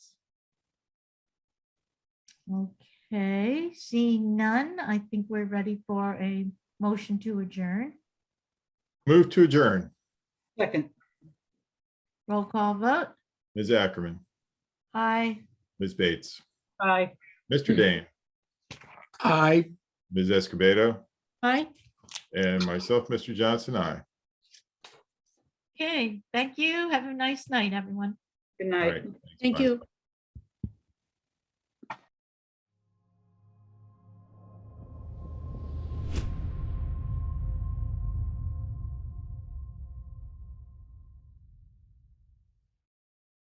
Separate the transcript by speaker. Speaker 1: Okay, seeing none, I think we're ready for a motion to adjourn.
Speaker 2: Move to adjourn.
Speaker 3: Second,
Speaker 1: Roll call vote.
Speaker 2: Ms. Ackerman,
Speaker 1: Aye.
Speaker 2: Ms. Bates,
Speaker 3: aye.
Speaker 2: Mr. Dane,
Speaker 4: Aye.
Speaker 2: Ms. Escobedo,
Speaker 1: Aye.
Speaker 2: and myself, Mr. Johnson, I.
Speaker 1: Okay, thank you. Have a nice night, everyone.
Speaker 3: Good night.
Speaker 2: Thank you.